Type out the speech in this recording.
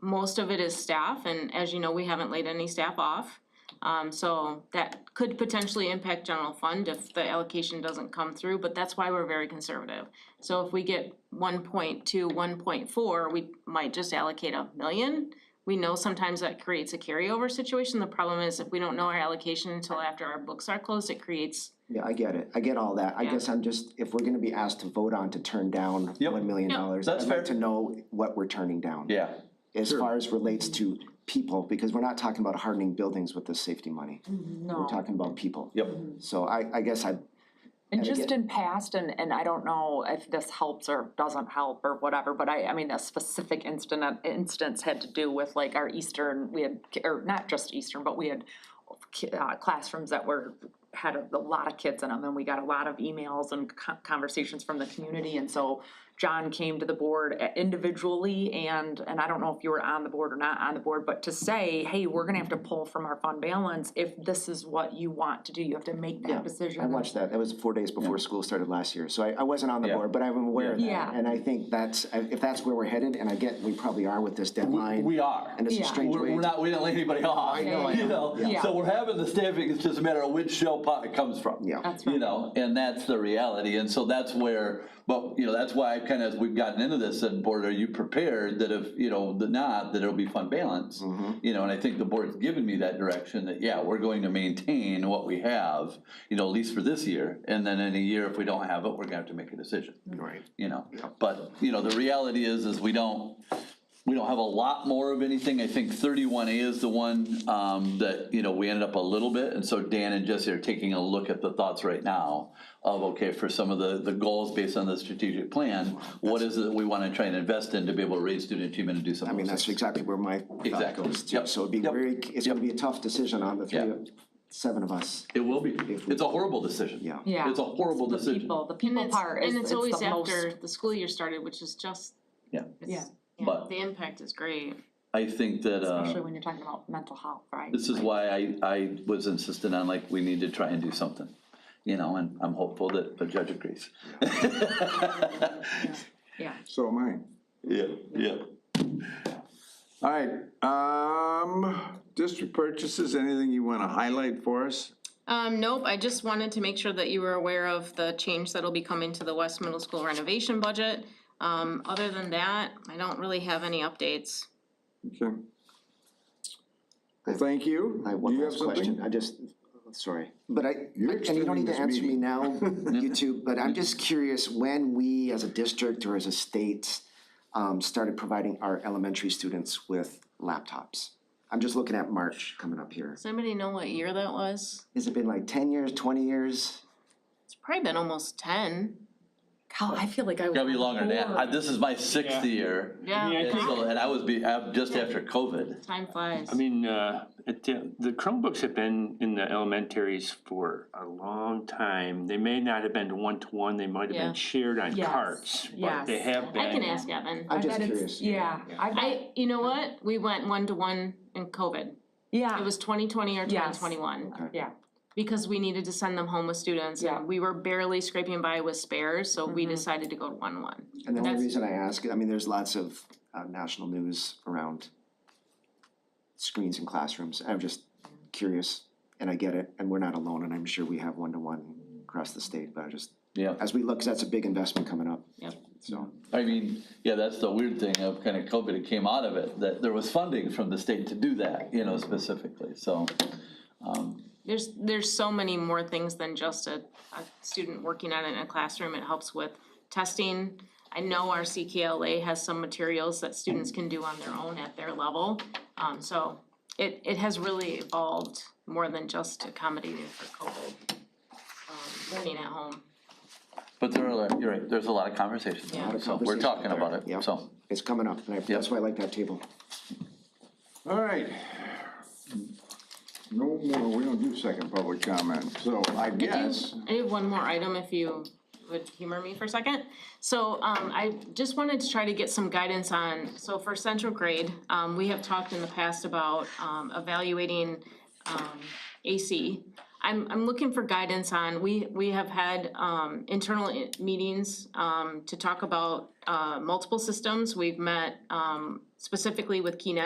most of it is staff, and as you know, we haven't laid any staff off. Um, so that could potentially impact general fund if the allocation doesn't come through, but that's why we're very conservative. So if we get 1.2, 1.4, we might just allocate a million. We know sometimes that creates a carryover situation, the problem is if we don't know our allocation until after our books are closed, it creates Yeah, I get it, I get all that, I Yeah. guess I'm just, if we're gonna be asked to vote on to turn down Yep. one million Yeah. dollars, That's I'd like to fair. know what we're turning down. Yeah, As far as relates to people, because we're not talking about hardening buildings with the safety money, we're No, talking about people. yep, So I, I guess I, and and just in past, and, and I don't know if this helps or doesn't help or whatever, but I, I mean, a specific incident, instance had to do with like our Eastern, we had, or not just Eastern, but we had ki- uh, classrooms that were, had a lot of kids in them, and we got a lot of emails and co- conversations from the community, and so John came to the board uh, individually, and, and I don't know if you were on the board or not on the board, but to say, hey, we're gonna have to pull from our fund balance if this is what you want to do, you have to make Yeah, that decision. I watched that, that was four days before school started last year, so I, I wasn't on the Yeah. board, but I'm aware of that. Yeah. And I think that's, if that's where we're headed, and I get, we probably are with this deadline. we are. And it's a Yeah. strange We're, way, we're to- not, we didn't lay anybody off. I know, I You know. know, Yeah. so we're having the staffing, it's just a matter of which shell pot it comes from. Yeah. That's You right. know, and that's the reality, and so that's where, but, you know, that's why I kind of, we've gotten into this, and board, are you prepared that if, you know, the not, that it'll be fund balance? You know, and I think the board's given me that direction, that, yeah, we're going to maintain what we have, you know, at least for this year, and then in a year, if we don't have it, we're gonna have to make a decision right, you know, but, you know, the reality is, is we don't, we don't have a lot more of anything, I think thirty-one A is the one, um, that, you know, we ended up a little bit, and so Dan and Jesse are taking a look at the thoughts right now of, okay, for some of the, the goals based on the strategic plan, what is it that we wanna try and invest in to be able to raise student achievement and do I something? mean, that's exactly where my thought Exactly. goes to, Yep. so it'd be Yep. very, it's gonna be a tough decision on the three, Yeah. of- seven of us. It will be, it's a horrible decision. Yeah. Yeah. It's a horrible The decision, people, the And people it's, part is, and it's it's always the after most. the school year started, which is just. Yeah. it's- Yeah. But- The impact is great. I think that, uh. Especially when you're talking about mental health, right? This is why I, I was insistent on like, we need to try and do something, you know, and I'm hopeful that the judge agrees. Yeah. So am I. Yeah, yeah. All right, um, district purchases, anything you wanna highlight for us? Um, nope, I just wanted to make sure that you were aware of the change that'll be coming to the West Middle School renovation budget. Um, other than that, I don't really have any updates. Okay. Well, thank you. I have Do one you have last question, something? I just, sorry, but I, You're and you don't extending need to this answer me meeting. now, you two, but I'm just curious, when we as a district or as a state um, started providing our elementary students with laptops? I'm just looking at March coming up here. Does anybody know what year that was? Has it been like ten years, twenty years? It's probably been almost ten. God, I feel like I was. Gotta be longer than that. I- bored. This is my sixth year. Yeah. Yeah, I And think- so- and I was be, uh, just after COVID. Time flies. I mean, uh, it, the Chromebooks have been in the elementaries for a long time. They may not have been one to one, they might have Yeah. been shared on Yes, carts, but they yes. have been. I can ask Evan. I'm I just bet it's- curious. Yeah, I, bet- I, you know what? We went one to one in COVID. It yeah, was twenty twenty or twenty Yes. twenty-one. yeah, because we needed to send them home with students Yeah. and we were barely scraping by with spares, so we decided to go to one one. And the only That's- reason I ask, I mean, there's lots of uh, national news around screens in classrooms. I'm just curious, and I get it, and we're not alone, and I'm sure we have one-to-one across the state, but I just, Yeah. as we look, 'cause that's a big investment coming up. Yep. So, I mean, yeah, that's the weird thing of kind of COVID, it came out of it, that there was funding from the state to do that, you know, specifically, so. There's, there's so many more things than just a, a student working on it in a classroom. It helps with testing. I know our CKLA has some materials that students can do on their own at their level. Um, so it, it has really evolved more than just accommodating for COVID, um, learning at home. But there are, you're right, there's a lot of conversations, Yeah. A lot of so we're conversations talking there, about it, yeah. so. it's coming up, and I- that's why I like that table. All right. No more, we don't do second public comment, so I guess, I have one more item if you would humor me for a second. So um I just wanted to try to get some guidance on, so for central grade, um we have talked in the past about um evaluating um AC. I'm, I'm looking for guidance on, we, we have had, um, internal i- meetings, um, to talk about, uh, multiple systems. We've met, um, specifically with Keenan